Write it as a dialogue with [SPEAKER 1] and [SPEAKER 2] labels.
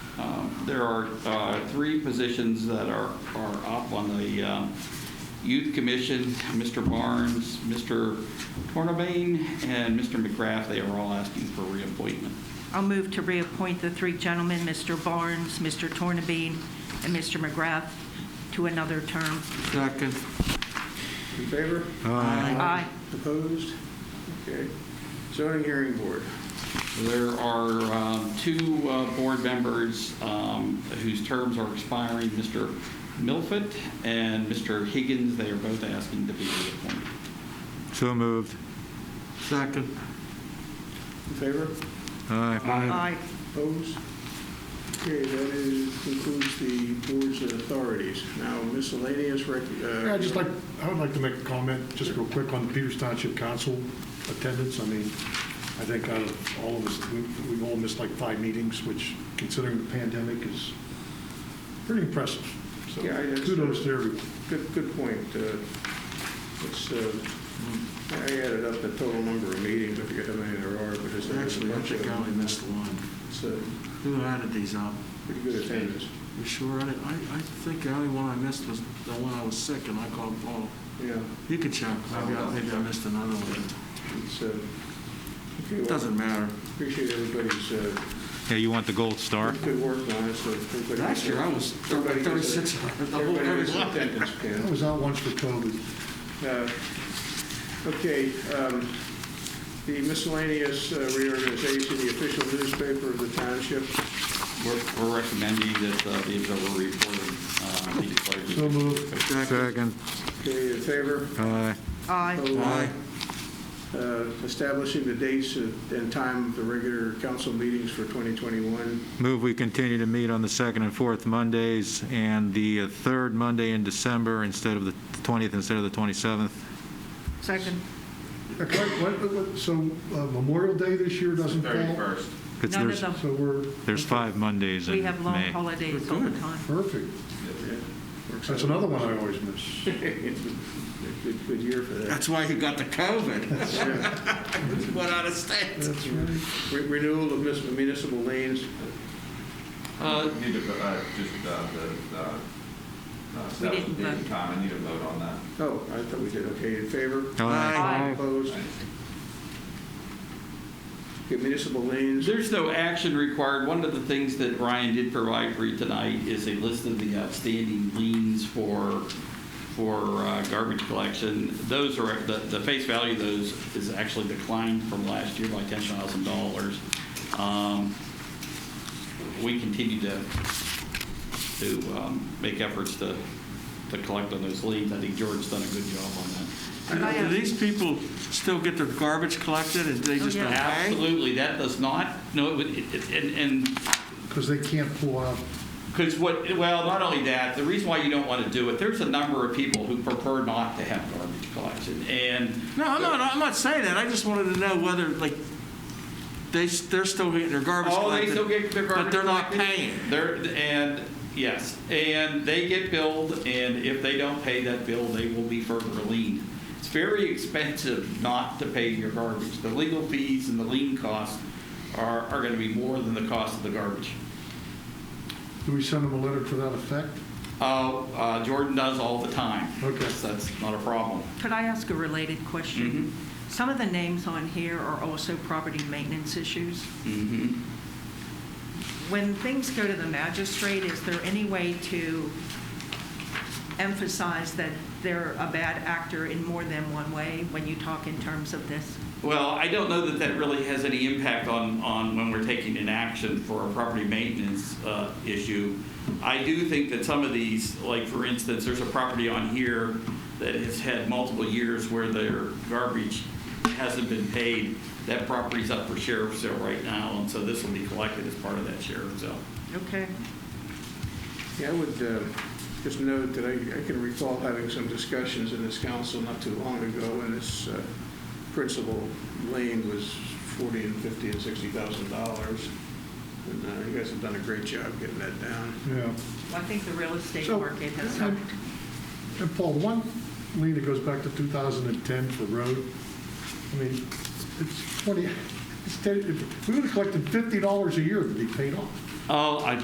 [SPEAKER 1] there are uh, three positions that are, are up on the uh, Youth Commission, Mr. Barnes, Mr. Tornabane, and Mr. McGrath. They are all asking for reappointment.
[SPEAKER 2] I'll move to reappoint the three gentlemen, Mr. Barnes, Mr. Tornabene, and Mr. McGrath, to another term.
[SPEAKER 3] Second.
[SPEAKER 4] In favor?
[SPEAKER 2] Aye.
[SPEAKER 4] Opposed? Okay. Zoning Hearing Board.
[SPEAKER 1] There are um, two uh, board members um, whose terms are expiring, Mr. Milford and Mr. Higgins. They are both asking to be reappointed.
[SPEAKER 5] So moved.
[SPEAKER 3] Second.
[SPEAKER 4] In favor?
[SPEAKER 5] Aye.
[SPEAKER 2] Aye.
[SPEAKER 4] Opposed? Okay, that is, concludes the board's authorities. Now miscellaneous rec.
[SPEAKER 6] Yeah,
[SPEAKER 4] uh,
[SPEAKER 6] I'd just like, I would like to make a comment, just real quick, on the Peters Township Council attendance. I mean, I think out of all of us, we- we've all missed like five meetings, which, considering the pandemic, is pretty impressive. So
[SPEAKER 4] Yeah, I guess-
[SPEAKER 6] kudos to everyone.
[SPEAKER 4] Good, good point. Uh, It's, uh, I added up the total number of meetings, I forget how many there are, but it's
[SPEAKER 3] Actually,
[SPEAKER 4] actually a
[SPEAKER 3] I
[SPEAKER 4] bunch of
[SPEAKER 3] think I only
[SPEAKER 4] them.
[SPEAKER 3] missed one.
[SPEAKER 4] It's a
[SPEAKER 3] Who added these up?
[SPEAKER 4] pretty good attendance.
[SPEAKER 3] You sure? I, didn't- I I think the only one I missed was the one I was sick and I called Paul.
[SPEAKER 4] Yeah,
[SPEAKER 3] You could check. Maybe I, maybe I missed another one.
[SPEAKER 4] it's, uh, okay,
[SPEAKER 3] It
[SPEAKER 4] well,
[SPEAKER 3] doesn't matter.
[SPEAKER 4] appreciate everybody's uh,
[SPEAKER 5] Yeah, you want the gold star?
[SPEAKER 4] good work on it, so everybody.
[SPEAKER 3] Last year I was
[SPEAKER 4] everybody gets a-
[SPEAKER 3] 36.
[SPEAKER 4] Everybody gets an attendance,
[SPEAKER 6] I
[SPEAKER 4] Ken.
[SPEAKER 6] was out once for COVID.
[SPEAKER 4] Uh, Okay, um, the miscellaneous uh, reorganization, the official newspaper of the township.
[SPEAKER 1] We're we're recommending that uh, these are reported. uh, be declared.
[SPEAKER 6] So moved.
[SPEAKER 5] Second.
[SPEAKER 4] Okay, in favor?
[SPEAKER 5] Aye.
[SPEAKER 2] Aye.
[SPEAKER 4] Aye. Uh, Establishing the dates and time of the regular council meetings for 2021.
[SPEAKER 5] Move we continue to meet on the second and fourth Mondays and the uh, third Monday in December instead of the 20th, instead of the 27th.
[SPEAKER 2] Second.
[SPEAKER 6] Uh, Clark, what- what- what- So uh, Memorial Day this year doesn't fall?
[SPEAKER 5] It's-
[SPEAKER 2] None of
[SPEAKER 5] there's-
[SPEAKER 2] them.
[SPEAKER 6] So we're.
[SPEAKER 5] There's five Mondays in May.
[SPEAKER 2] We have long holidays all the time.
[SPEAKER 6] Perfect.
[SPEAKER 4] Works
[SPEAKER 6] That's
[SPEAKER 4] out.
[SPEAKER 6] another one I always miss.
[SPEAKER 4] It's a Good good year for that.
[SPEAKER 3] That's why he got the COVID. He Went out of state.
[SPEAKER 6] That's right.
[SPEAKER 4] Re- Renewal of mis- municipal lanes.
[SPEAKER 1] Uh,
[SPEAKER 7] Need to, uh, just, uh, the, uh, uh, stuff,
[SPEAKER 2] didn't
[SPEAKER 7] date and
[SPEAKER 2] vote.
[SPEAKER 7] time, I need a vote on that.
[SPEAKER 4] Oh, I thought we did, okay, in favor?
[SPEAKER 5] Aye.
[SPEAKER 2] Aye.
[SPEAKER 4] Opposed? Okay, Municipal lanes,
[SPEAKER 1] There's no action required. One of the things that Ryan did provide for you tonight is a list of the outstanding liens for, for uh, garbage collection. Those are, the, the face value of those is actually declined from last year by $10,000. Um, We continue to, to um, make efforts to, to collect on those liens. I think George's done a good job on that.
[SPEAKER 2] Aye.
[SPEAKER 3] Do these people still get their garbage collected and they just
[SPEAKER 2] Oh,
[SPEAKER 3] don't
[SPEAKER 2] yeah.
[SPEAKER 3] pay?
[SPEAKER 1] Absolutely, that does not, no, it would- it- it- and, and
[SPEAKER 6] Because they can't pull out.
[SPEAKER 1] Because what, well, not only that, the reason why you don't want to do it, there's a number of people who prefer not to have garbage collection, and
[SPEAKER 3] No, I'm not, I'm not saying that. I just wanted to know whether, like, they, s- they're still getting their garbage
[SPEAKER 1] Oh,
[SPEAKER 3] collected.
[SPEAKER 1] they still get their garbage
[SPEAKER 3] But they're not
[SPEAKER 1] collected?
[SPEAKER 3] paying.
[SPEAKER 1] They're, and, yes, and they get billed, and if they don't pay that bill, they will be further leaned. It's very expensive not to pay your garbage. The legal fees and the lien costs are, are going to be more than the cost of the garbage.
[SPEAKER 6] Do we send them a letter to that effect?
[SPEAKER 1] Uh, uh, Jordan does all the time.
[SPEAKER 6] Okay.
[SPEAKER 1] So That's not a problem.
[SPEAKER 2] Could I ask a related question? Some of the names on here are also property maintenance issues.
[SPEAKER 1] Mm-hmm.
[SPEAKER 2] When things go to the magistrate, is there any way to emphasize that they're a bad actor in more than one way when you talk in terms of this?
[SPEAKER 1] Well, I don't know that that really has any impact on, on when we're taking an action for a property maintenance uh, issue. I do think that some of these, like for instance, there's a property on here that has had multiple years where their garbage hasn't been paid. That property's up for sheriff's sale right now, and so this will be collected as part of that sheriff's sale.
[SPEAKER 2] Okay.
[SPEAKER 4] yeah, I would uh, just note that I I can recall having some discussions in this council not too long ago, and this uh, principal lane was 40 and 50 and 60,000 dollars. And uh, you guys have done a great job getting that down.
[SPEAKER 6] Yeah.
[SPEAKER 2] Well, I think the real estate
[SPEAKER 6] So-
[SPEAKER 2] market has helped.
[SPEAKER 6] And Paul, the one lien that goes back to 2010 for road, I mean, it's 20, it's 10 if we would have collected $50 a year to be paid off.
[SPEAKER 1] Oh, I